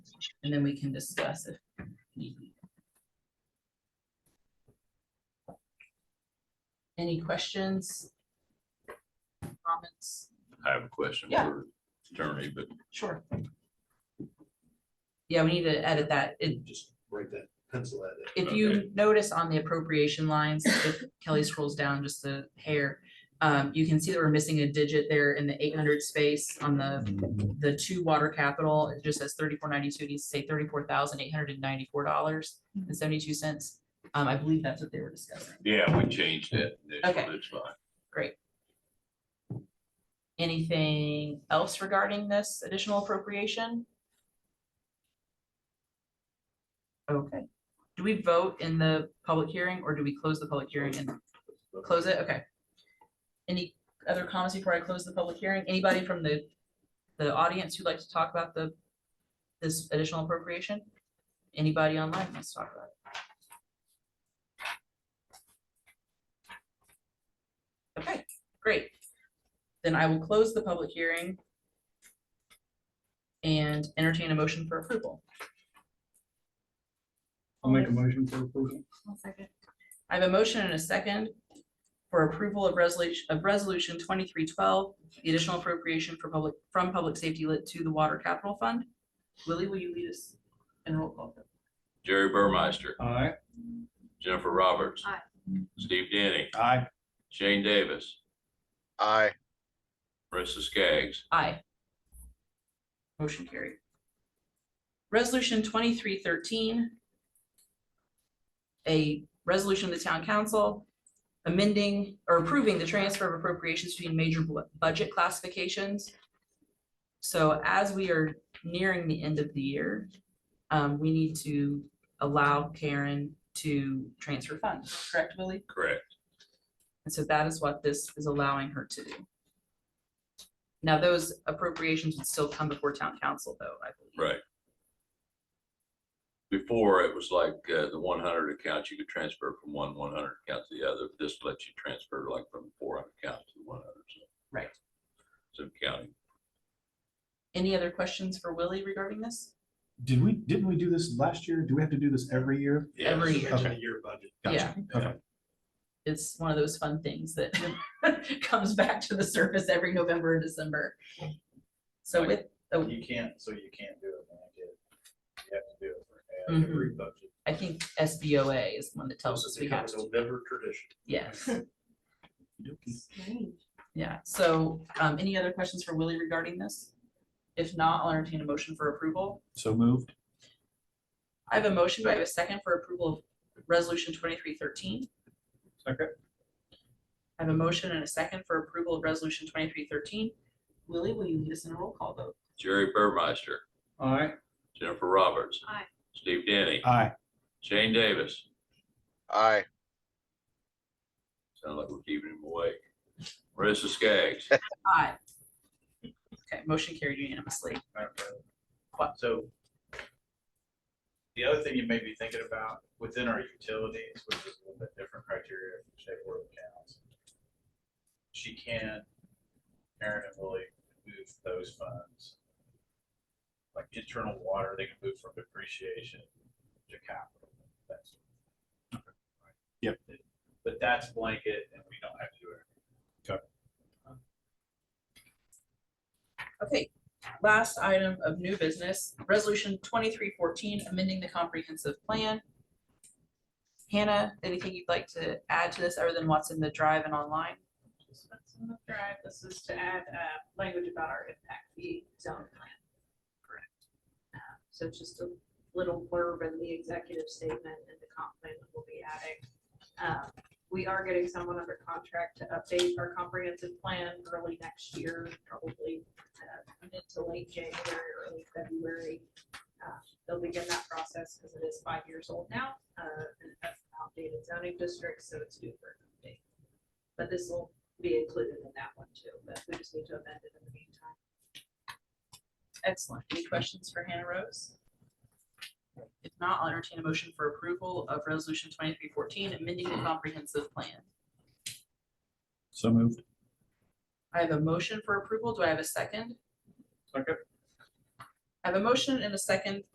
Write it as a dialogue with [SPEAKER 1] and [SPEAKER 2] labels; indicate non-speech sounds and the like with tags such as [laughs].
[SPEAKER 1] and then we can discuss if. need be. Any questions? Comments?
[SPEAKER 2] I have a question
[SPEAKER 1] Yeah.
[SPEAKER 2] for attorney, but
[SPEAKER 1] Sure. Yeah, we need to edit that. It,
[SPEAKER 3] just write that pencil at it.
[SPEAKER 1] if you notice on the appropriation lines, if Kelly scrolls down just a hair, um, you can see that we're missing a digit there in the eight hundred space on the, the two water capital. It just says thirty-four ninety-two, it needs to say thirty-four thousand eight hundred and ninety-four dollars and seventy-two cents. Um, I believe that's what they were discussing.
[SPEAKER 2] yeah, we changed it.
[SPEAKER 1] Okay.
[SPEAKER 2] It's fine.
[SPEAKER 1] Anything else regarding this additional appropriation? Okay, do we vote in the public hearing or do we close the public hearing and close it? Okay. Any other comments before I close the public hearing? Anybody from the, the audience who'd like to talk about the, this additional appropriation? Anybody online wants to talk about it? Okay, great. Then I will close the public hearing and entertain a motion for approval.
[SPEAKER 4] I'll make a motion for approval.
[SPEAKER 1] I have a motion and a second for approval of resolution, of resolution twenty-three twelve, the additional appropriation for public, from public safety lit to the water capital fund. Willie, will you lead us in roll call?
[SPEAKER 2] Jerry Burmeister,
[SPEAKER 4] Aye.
[SPEAKER 2] Jennifer Roberts.
[SPEAKER 5] Aye.
[SPEAKER 2] Steve Denny,
[SPEAKER 4] Aye.
[SPEAKER 2] Shane Davis,
[SPEAKER 3] Aye.
[SPEAKER 2] Marissa Skaggs,
[SPEAKER 1] Aye. Motion carried. Resolution twenty-three thirteen. A resolution of the town council amending or approving the transfer of appropriations between major bu- budget classifications. So as we are nearing the end of the year, um, we need to allow Karen to transfer funds, correct, Willie?
[SPEAKER 2] correct.
[SPEAKER 1] And so that is what this is allowing her to do. Now, those appropriations would still come before town council, though, I believe.
[SPEAKER 2] Right. Before, it was like uh, the one hundred account, you could transfer from one one hundred account to the other. This lets you transfer like from four hundred account to one hundred.
[SPEAKER 1] Right.
[SPEAKER 2] So counting.
[SPEAKER 1] Any other questions for Willie regarding this?
[SPEAKER 6] Did we, didn't we do this last year? Do we have to do this every year?
[SPEAKER 2] Yes.
[SPEAKER 1] Every year.
[SPEAKER 3] Depends on the year budget.
[SPEAKER 6] Gotcha.
[SPEAKER 1] Yeah.
[SPEAKER 6] Okay.
[SPEAKER 1] It's one of those fun things that [laughs] comes back to the surface every November and December. So with, oh,
[SPEAKER 3] You can't, so you can't do it. when I get it. You have to do it for uh, every
[SPEAKER 6] Mm-hmm.
[SPEAKER 3] budget.
[SPEAKER 1] I think SBOA is the one that tells
[SPEAKER 3] This
[SPEAKER 1] us
[SPEAKER 3] has
[SPEAKER 1] we
[SPEAKER 3] become
[SPEAKER 1] have to,
[SPEAKER 3] a November tradition.
[SPEAKER 6] [laughs]
[SPEAKER 1] yes.
[SPEAKER 5] Strange.
[SPEAKER 1] Yeah, so, um, any other questions for Willie regarding this? If not, I'll entertain a motion for approval.
[SPEAKER 6] So moved.
[SPEAKER 1] I have a motion, do I have a second for approval of resolution twenty-three thirteen?
[SPEAKER 4] Second.
[SPEAKER 1] I have a motion and a second for approval of resolution twenty-three thirteen. Willie, will you lead us in a roll call vote?
[SPEAKER 2] Jerry Burmeister,
[SPEAKER 4] Aye.
[SPEAKER 2] Jennifer Roberts.
[SPEAKER 5] Aye.
[SPEAKER 2] Steve Denny,
[SPEAKER 6] Aye.
[SPEAKER 2] Shane Davis.
[SPEAKER 3] Aye.
[SPEAKER 2] Sound like we're keeping him awake. Marissa Skaggs.
[SPEAKER 1] Aye. Okay, motion carried unanimously. What?
[SPEAKER 3] So the other thing you may be thinking about within our utilities, which is a little bit different criteria for shape or accounts. She can, Karen and Willie, move those funds. Like internal water, they can move from depreciation to capital. that's-
[SPEAKER 6] Yep.
[SPEAKER 3] But that's blanket and we don't have to do it.
[SPEAKER 1] Okay, last item of new business, resolution twenty-three fourteen, amending the comprehensive plan. Hannah, anything you'd like to add to this other than what's in the drive and online?
[SPEAKER 7] Just that's on the drive. This is to add uh, language about our impact fee zone plan. Correct. Uh, So just a little blurb in the executive statement and the comp plan that we'll be adding. Um, We are getting someone under contract to update our comprehensive plan early next year, probably uh, mid to late January, early February. Uh, They'll begin that process because it is five years old now, uh, and that's an outdated zoning district, so it's due for an update. But this will be included in that one too, but we just need to amend it in the meantime.
[SPEAKER 1] Excellent. Any questions for Hannah Rose? If not, I'll entertain a motion for approval of resolution twenty-three fourteen, amending the comprehensive plan.
[SPEAKER 6] So moved.
[SPEAKER 1] I have a motion for approval. Do I have a second?
[SPEAKER 4] Second.
[SPEAKER 1] I have a motion and a second